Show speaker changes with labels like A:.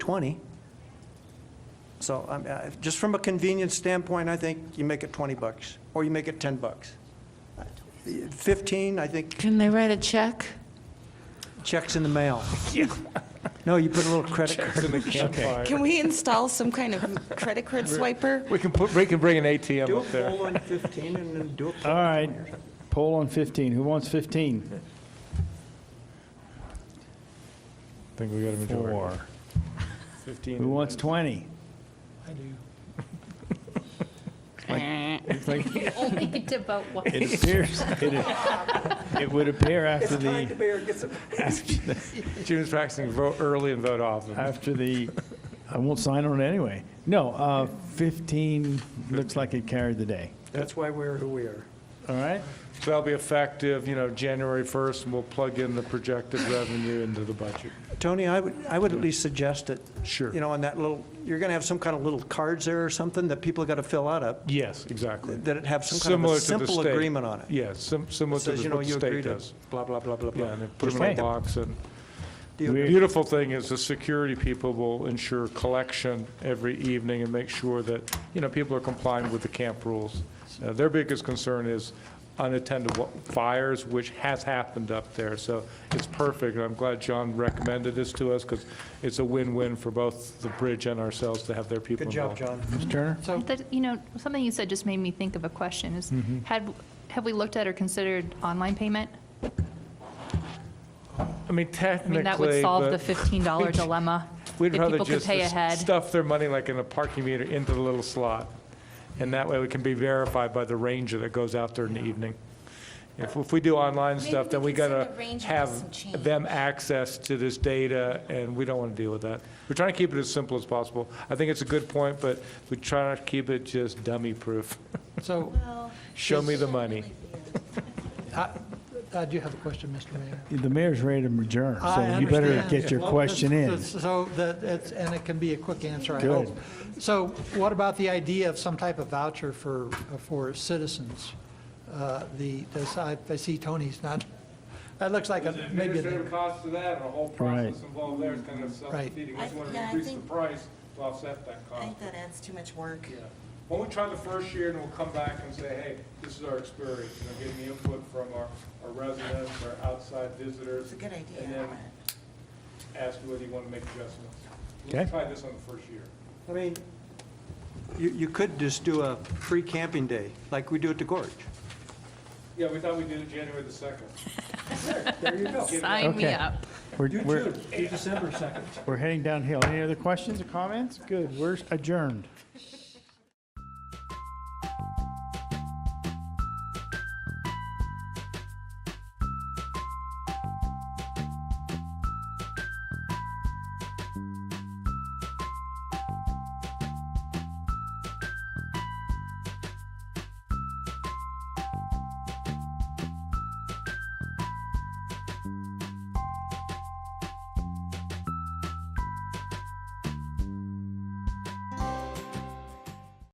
A: 20. So um, uh, just from a convenience standpoint, I think you make it 20 bucks, or you make it 10 bucks. 15, I think
B: Can they write a check?
A: checks in the mail. No, you put a little credit card.
C: Can we install some kind of credit card swiper?
D: We can put, we can bring an ATM
A: Do a
D: up there.
A: poll on 15 and then do a poll.
E: All right, poll on 15. Who wants 15?
D: Think we got a
E: Four.
D: Fifteen.
E: Who wants 20?
F: Only devote one.
E: It appears, it it would appear after the,
A: Mayor gets a
D: June's practicing vote early and vote often.
E: after the, I won't sign on it anyway. No, uh, 15 looks like it carried the day.
A: That's why we're who we are.
E: All right?
D: So That'll be effective, you know, January 1st, and we'll plug in the projected revenue into the budget.
A: Tony, I would, I would at least suggest it.
D: Sure.
A: You know, on that little, you're going to have some kind of little cards there or something that people got to fill out up,
D: Yes, exactly.
A: that it have some kind of
D: Similar
A: a
D: to the
A: simple
D: state.
A: agreement on it.
D: Yeah, sim- similar to
A: Says, you
D: the-
A: know,
D: what the
A: you agree
D: state
A: to
D: does.
A: blah, blah, blah, blah,
D: Yeah,
A: blah.
D: and they put them in a
E: Okay.
D: box, and
A: Do
D: the
A: you-
D: beautiful thing is the security people will ensure collection every evening and make sure that, you know, people are complying with the camp rules. Uh, Their biggest concern is unattended wa- fires, which has happened up there, so it's perfect. I'm glad John recommended this to us, because it's a win-win for both the bridge and ourselves to have their people
A: Good job,
D: involved.
A: John.
E: Mr. Turner?
F: That- You know, something you said just made me think of a question, is
D: Mm-hmm.
F: had, have we looked at or considered online payment?
D: I mean,
F: I mean,
D: technically,
F: that would solve the
D: but-
F: $15 dilemma.
D: We'd
F: if
D: rather
F: people could
D: just
F: pay
D: s-
F: ahead.
D: stuff their money like in a parking meter into the little slot. And that way we can be verified by the ranger that goes out there in the evening. If, if we do online stuff, then we
G: we can send
D: gotta
G: the ranger with some
D: have
G: change.
D: them access to this data and we don't wanna deal with that. We're trying to keep it as simple as possible. I think it's a good point, but we try not to keep it just dummy-proof.
H: So,
D: Show me the money.
H: I, I do have a question, Mr. Mayor.
E: The mayor's ready to adjourn, so
H: I
E: you better
H: understand.
E: get your
H: Well,
E: question in.
H: that's- So that, it's- and it can be a quick answer, I
E: Good.
H: hope. So what about the idea of some type of voucher for, uh, for citizens? Uh, The, this- I I see Tony's not, that looks like a, maybe, a-
D: cost to that and the whole
E: process Right.
D: involved there is kind of
H: self-defeating.
G: We just wanna Yeah, I increase the think-
D: price to offset that
G: I think that adds too much work.
D: Yeah. Why don't we try the first year, and we'll come back and say, hey, this is our experience, you know, getting the input from our, our residents, our outside visitors.
G: It's a good idea.
D: And then ask whether you want to make adjustments.
E: Okay.
D: Let's try this on the first year.
A: I mean, you, you could just do a free camping day, like we do at the Gorge.
D: Yeah, we thought we'd do it January the second.
A: There you go.
F: Sign me
E: Okay.
F: up.
E: We're- we're-
A: December 2nd.
E: We're heading downhill. Any other questions or comments? Good, we're adjourned.